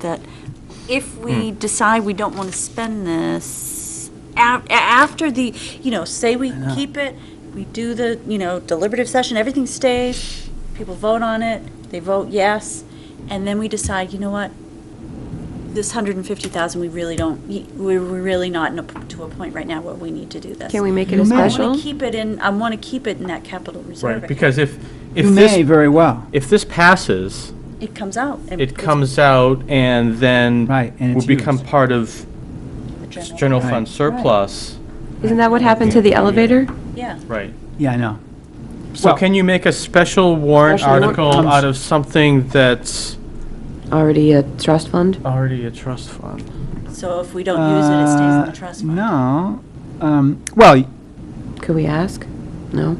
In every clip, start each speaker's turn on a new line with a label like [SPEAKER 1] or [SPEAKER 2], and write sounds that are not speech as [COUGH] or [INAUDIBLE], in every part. [SPEAKER 1] that if we
[SPEAKER 2] Hmm.
[SPEAKER 1] decide we don't want to spend this, a- after the, you know, say we keep it, we do the, you know, deliberative session, everything stays, people vote on it, they vote yes, and then we decide, you know what, this 150,000, we really don't, we- we're really not in a p- to a point right now where we need to do this.
[SPEAKER 3] Can we make it a
[SPEAKER 4] You may.
[SPEAKER 1] I want
[SPEAKER 3] special?
[SPEAKER 1] to keep it in, I want to keep it in that capital reserve.
[SPEAKER 2] Right, because if, if
[SPEAKER 4] You may
[SPEAKER 2] this,
[SPEAKER 4] very well,
[SPEAKER 2] if this passes,
[SPEAKER 1] It comes out. and
[SPEAKER 2] it
[SPEAKER 1] it's
[SPEAKER 2] comes out and then
[SPEAKER 4] Right, and
[SPEAKER 2] will
[SPEAKER 4] it's
[SPEAKER 2] become
[SPEAKER 4] used.
[SPEAKER 2] part of
[SPEAKER 1] the
[SPEAKER 2] s-
[SPEAKER 1] general-
[SPEAKER 2] general
[SPEAKER 4] Right.
[SPEAKER 2] fund surplus.
[SPEAKER 3] Isn't that what happened to the elevator?
[SPEAKER 1] Yeah.
[SPEAKER 2] Right.
[SPEAKER 4] yeah, I know.
[SPEAKER 2] So
[SPEAKER 4] Well-
[SPEAKER 2] can you make a special warrant
[SPEAKER 3] Special warrant
[SPEAKER 2] article
[SPEAKER 4] comes-
[SPEAKER 2] out of something that's
[SPEAKER 3] Already a trust fund?
[SPEAKER 2] already a trust fund?
[SPEAKER 1] So if we don't use it, it stays in the
[SPEAKER 4] Uh,
[SPEAKER 1] trust fund.
[SPEAKER 4] No, um, well,
[SPEAKER 3] Could we ask? No?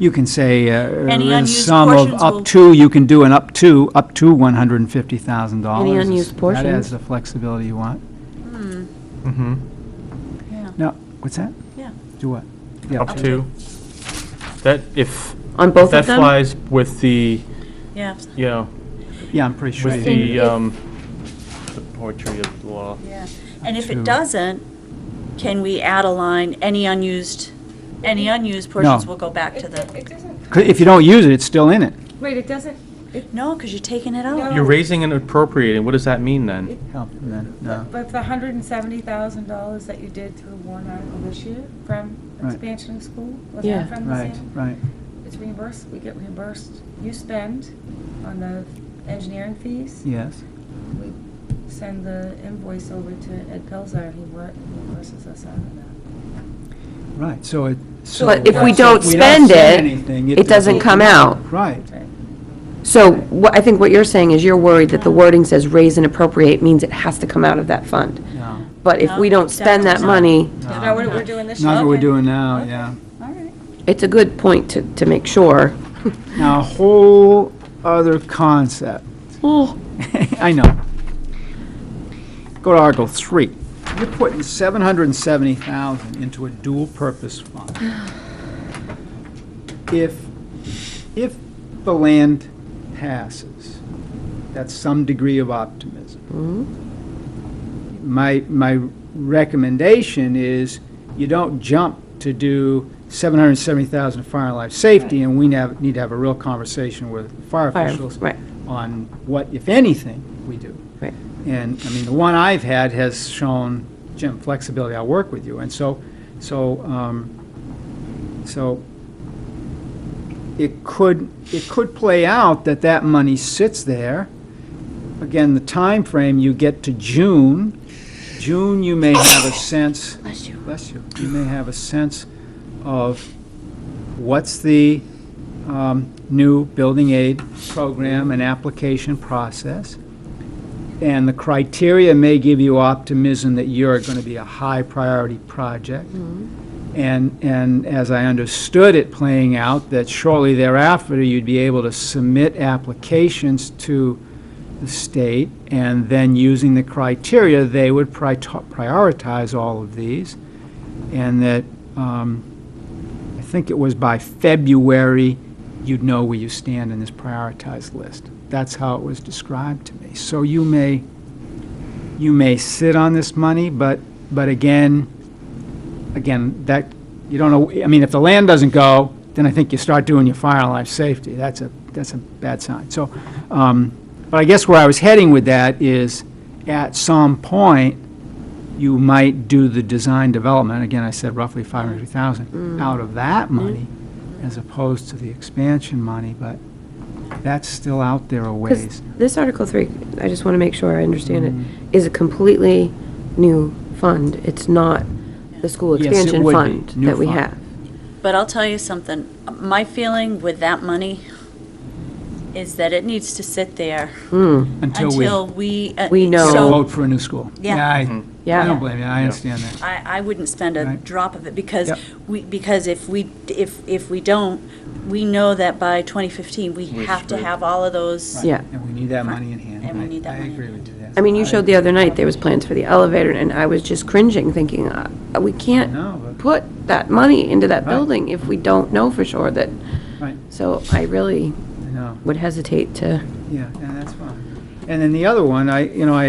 [SPEAKER 4] you can say,
[SPEAKER 1] Any
[SPEAKER 4] uh, a
[SPEAKER 1] unused
[SPEAKER 4] sum of
[SPEAKER 1] portions will-
[SPEAKER 4] up to, you can do an up to, up to one hundred and fifty thousand dollars.
[SPEAKER 3] Any unused portions?
[SPEAKER 4] That adds the flexibility you want.
[SPEAKER 2] Mm-hmm.
[SPEAKER 1] Yeah.
[SPEAKER 4] No, what's that?
[SPEAKER 1] Yeah.
[SPEAKER 4] Do what? Yeah,
[SPEAKER 2] Up to. That, if,
[SPEAKER 3] On
[SPEAKER 2] if
[SPEAKER 3] both
[SPEAKER 2] that
[SPEAKER 3] of them?
[SPEAKER 2] flies with the,
[SPEAKER 1] Yeah.
[SPEAKER 2] you know,
[SPEAKER 4] yeah, I'm pretty sure.
[SPEAKER 2] with the,
[SPEAKER 4] you-
[SPEAKER 2] um, the poetry of the law.
[SPEAKER 1] Yeah. And if it
[SPEAKER 4] Two.
[SPEAKER 1] doesn't, can we add a line, any unused, any unused portions
[SPEAKER 4] No.
[SPEAKER 1] will go back to
[SPEAKER 5] It- It
[SPEAKER 1] the,
[SPEAKER 5] it doesn't,
[SPEAKER 4] C- If you don't use it, it's still in it.
[SPEAKER 5] wait, it doesn't, it,
[SPEAKER 1] no, because you're taking it out.
[SPEAKER 5] No.
[SPEAKER 2] You're raising and appropriating, what does that mean then?
[SPEAKER 4] Help, and then, no.
[SPEAKER 5] but the hundred and seventy thousand dollars that you did through warrant article this year from
[SPEAKER 4] Right.
[SPEAKER 5] expansion of school, was
[SPEAKER 3] Yeah.
[SPEAKER 5] that from the
[SPEAKER 4] Right,
[SPEAKER 5] same?
[SPEAKER 4] right.
[SPEAKER 5] It's reimbursed, we get reimbursed. You spend on the engineering fees.
[SPEAKER 4] Yes,
[SPEAKER 5] We send the invoice over to Ed Pelzar, and he wor- reimburses us out of that.
[SPEAKER 4] right, so it, so.
[SPEAKER 3] But if we
[SPEAKER 4] so
[SPEAKER 3] don't spend
[SPEAKER 4] spend
[SPEAKER 3] it,
[SPEAKER 4] anything,
[SPEAKER 3] it doesn't come out.
[SPEAKER 4] Right,
[SPEAKER 5] Right.
[SPEAKER 3] So what, I think what you're saying is you're worried that the wording says raise and appropriate means it has to come out of that fund.
[SPEAKER 4] no,
[SPEAKER 3] But if we
[SPEAKER 1] No,
[SPEAKER 3] don't spend that
[SPEAKER 1] definitely.
[SPEAKER 3] money,
[SPEAKER 5] Is that what we're doing this year?
[SPEAKER 4] not what we're
[SPEAKER 5] Okay.
[SPEAKER 4] doing now,
[SPEAKER 5] Okay.
[SPEAKER 4] yeah.
[SPEAKER 5] All right.
[SPEAKER 3] it's a good point to, to make sure. [LAUGHS]
[SPEAKER 4] Now, a whole other concept. [LAUGHS] I know. Go to Article 3. You're putting 770,000 into a dual-purpose fund. If, if the land passes, that's some degree of optimism.
[SPEAKER 3] Hmm?
[SPEAKER 4] My, my recommendation is you don't jump to do 770,000 fire and life safety, and we nav- need to have a real conversation with fire
[SPEAKER 3] Fire,
[SPEAKER 4] officials
[SPEAKER 3] right.
[SPEAKER 4] on what, if anything, we do.
[SPEAKER 3] Right.
[SPEAKER 4] And, I mean, the one I've had has shown, Jim, flexibility, I'll work with you. And so, so, um, so it could, it could play out that that money sits there. Again, the time frame you get to June, June, you may have a sense. Bless you. Bless you. You may have a sense of what's the um, new building aid program and application process. And the criteria may give you optimism that you're going to be a high-priority project. And, and as I understood it playing out, that shortly thereafter, you'd be able to submit applications to the state, and then using the criteria, they would pri- prioritize all of these, and that, um, I think it was by February, you'd know where you stand in this prioritized list. That's how it was described to me. So you may, you may sit on this money, but, but again, again, that, you don't know, I mean, if the land doesn't go, then I think you start doing your fire and life safety. That's a, that's a bad sign. So, um, but I guess where I was heading with that is, at some point, you might do the design development, again, I said roughly 500,000, out of that money, as opposed to the expansion money, but that's still out there a
[SPEAKER 3] Because
[SPEAKER 4] ways.
[SPEAKER 3] this Article 3, I just want to make sure I understand it, is a completely new fund. It's not the school
[SPEAKER 4] Yes, it
[SPEAKER 3] expansion
[SPEAKER 4] would be.
[SPEAKER 3] fund
[SPEAKER 4] New
[SPEAKER 3] that we
[SPEAKER 4] fund.
[SPEAKER 3] have.
[SPEAKER 1] But I'll tell you something, my feeling with that money is that it needs to sit there
[SPEAKER 3] Hmm,
[SPEAKER 4] Until we
[SPEAKER 1] until we. uh,
[SPEAKER 3] We know.
[SPEAKER 1] so
[SPEAKER 4] vote for a new school.
[SPEAKER 1] Yeah. Mm-hmm.
[SPEAKER 4] I- I
[SPEAKER 3] Yeah.
[SPEAKER 4] don't blame you, I understand that.
[SPEAKER 1] I, I wouldn't spend a
[SPEAKER 4] Right.
[SPEAKER 1] drop of it because
[SPEAKER 4] Yep.
[SPEAKER 1] we, because if we, if, if we don't, we know that by 2015, we
[SPEAKER 2] We
[SPEAKER 1] have to
[SPEAKER 2] should.
[SPEAKER 1] have all of those.
[SPEAKER 3] Yeah.
[SPEAKER 4] And we need that money in hand.
[SPEAKER 1] And we
[SPEAKER 4] I-
[SPEAKER 1] need that
[SPEAKER 4] I
[SPEAKER 1] money in
[SPEAKER 4] agree
[SPEAKER 1] hand.
[SPEAKER 4] with you there.
[SPEAKER 3] I mean, you showed the other night, there was plans for the elevator, and I was just cringing, thinking, uh, we
[SPEAKER 4] No,
[SPEAKER 3] can't
[SPEAKER 4] but-
[SPEAKER 3] put that money into that
[SPEAKER 4] Right.
[SPEAKER 3] building if we don't know for sure that,
[SPEAKER 4] Right,
[SPEAKER 3] so I really
[SPEAKER 4] I know,
[SPEAKER 3] would hesitate to,
[SPEAKER 4] yeah, yeah, that's fine. And then the other one, I, you know, I